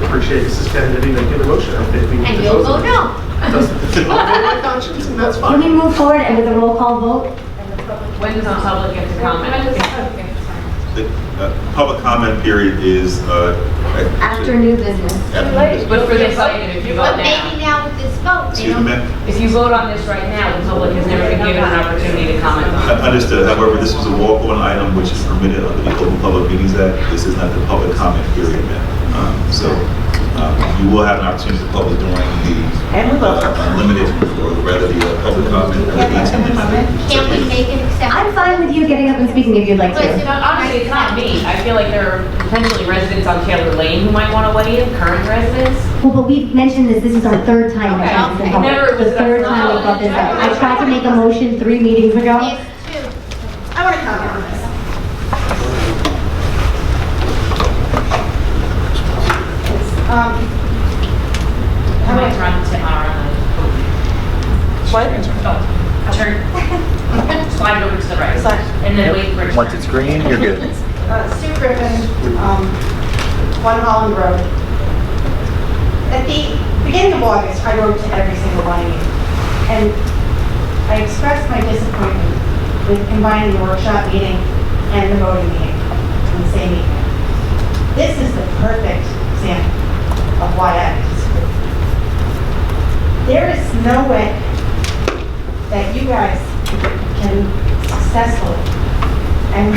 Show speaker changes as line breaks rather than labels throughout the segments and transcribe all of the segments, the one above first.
appreciate Mrs. Kennedy making the motion. I think we need
And
to
you'll
vote. on
vote
it.
no.
Doesn't- It's okay, my conscience, and that's
Can we
fine.
move forward and with a roll call vote?
When does the public get to comment?
The uh, public comment period is uh,
After new business.
after this.
But for this item, if you vote
But
now,
maybe now with this vote, they
Excuse
don't.
me, ma'am?
if you vote on this right now, the public has never been given an opportunity to comment on
Uh, Understood. However, this was a walk-on item which is permitted under the Open Public Meetings Act. This is not the public comment period, ma'am. Um, So um, you will have an opportunity to public during the uh, unlimited, or rather the uh, public comment.
Can we make an
I'm
exception?
fine with you getting up and speaking if you'd like
Listen,
to.
honestly, it's not me. I feel like there are potentially residents on Taylor Lane who might want to weigh in, current residents.
Well, but we've mentioned this, this is our third time. we've
Okay.
brought this
I
up.
never was-
The third time we brought this up. I tried to make a motion three meetings ago.
Yes, two.
I want to comment on this. Um,
I might run tomorrow.
What?
Oh, Turn, slide it over to the right.
Sorry.
And then wait for it. to
Once
turn.
it's green, you're good.
uh, Sue Griffin, um, One Holland Road. At the beginning of August, I wrote to every single one of you, and I expressed my disappointment with combining the workshop meeting and the voting meeting in the same evening. This is the perfect example of why I disagree. There is no way that you guys can successfully, and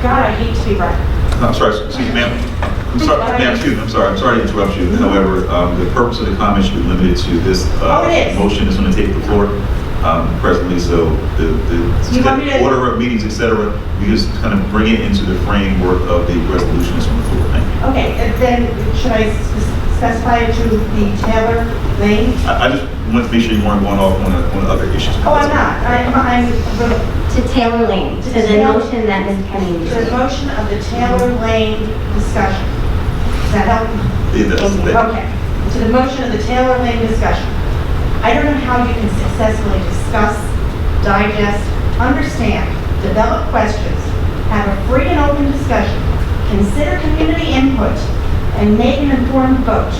God, I hate to be right.
I'm sorry, excuse me, ma'am. I'm sorry, ma'am, excuse me, I'm sorry, I'm sorry to interrupt you. However, um, the purpose of the comment should be limited to this uh,
Oh, it is.
motion that's going to take the floor um, presently, so the,
You want me
the
to-
order of meetings, et cetera, we just kind of bring it into the framework of the resolution that's on the floor. Thank you.
Okay, and then should I s- specify it to the Taylor Lane?
I I just want to make sure you weren't going off on a- on other issues.
Oh, I'm not. I'm, I'm, the-
To Taylor Lane, to the
Taylor-
motion that Ms. Kennedy
the
made.
motion of the Taylor Lane discussion. Does that help?
Yeah, that's-
Thank you.
that-
Okay. To the motion of the Taylor Lane discussion. I don't know how you can successfully discuss, digest, understand, develop questions, have a free and open discussion, consider community input, and make an informed vote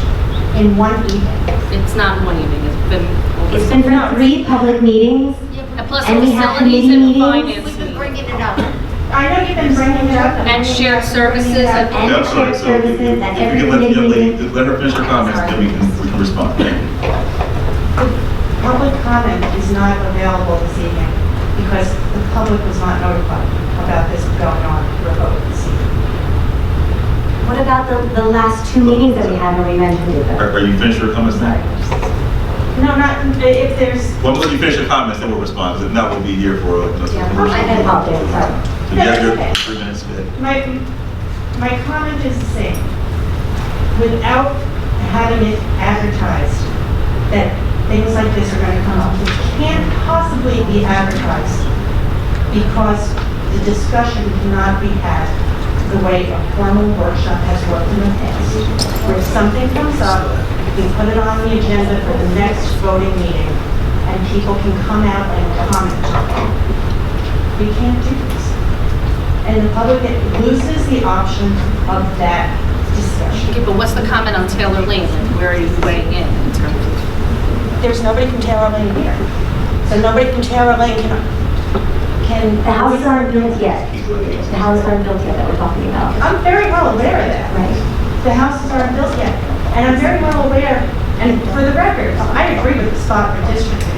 in one evening.
It's not one evening, it's been,
It's been for three public meetings.
Yeah,
plus
And we have
facilities
committee
and
meetings.
finance.
We've been bringing it up.
I know you've been bringing it up.
And shared services
Yeah.
and-
And
Yeah,
the
I'm sorry, so if-
shared
if
services
you
and every
can let the
committee
young lady,
meeting.
let her finish her comments, then we can, we can respond. Thank you.
Public comment is not available this evening because the public was not notified about this going on for a vote this evening.
What about the, the last two meetings that we had where we mentioned it? though?
Are are you finished your comments now?
No, not, if there's,
Well, when you finish your comments, then we'll respond, because if not, we'll be here for. uh,
Yeah, I apologize, sorry.
So you have your three minutes, go ahead.
my, my comment is the same. Without having it advertised that things like this are going to come up, it can't possibly be advertised because the discussion cannot be had the way a formal workshop has worked in the past, where if something comes up, we put it on the agenda for the next voting meeting, and people can come out and comment. We can't do this. And the public loses the option of that discussion.
Okay, but what's the comment on Taylor Lane? Like, Where are you weighing in in terms of?
There's nobody from Taylor Lane here. So nobody from Taylor Lane can, can...
The houses aren't built yet. The houses aren't built yet that we're talking about,
I'm very well aware of that.
right?
the houses aren't built yet. And I'm very well aware, and for the record, I agree with the spot redistricting.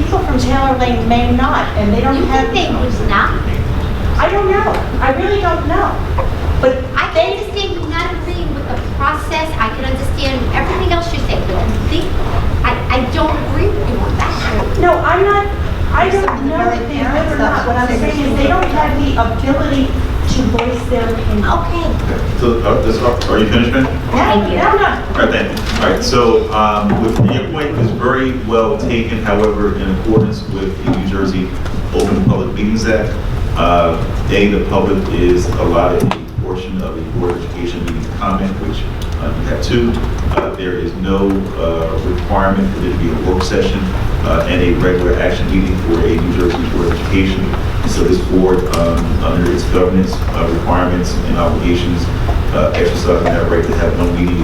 People from Taylor Lane may not, and they don't
You
have,
can think who's not.
I don't know. I really don't know. But
I can understand you not agreeing with the process. I can understand everything else you're saying. But I think, I, I don't agree with you on that.
No, I'm not, I don't know if they would or not. What I'm saying is they don't have the ability to voice their opinion.
Okay.
So, uh, this- are you finished, ma'am?
No,
All
no, no.
right, thank you. All right, so um, with- your point is very well taken, however, in accordance with the New Jersey Open Public Meetings Act, uh, A, the public is allotted a portion of a Board of Education meeting to comment, which uh, you have two. Uh, There is no uh, requirement for there to be a work session uh, and a regular action meeting for a New Jersey Board of Education. So this board, um, under its governance uh, requirements and obligations, uh, exercising that right to have one meeting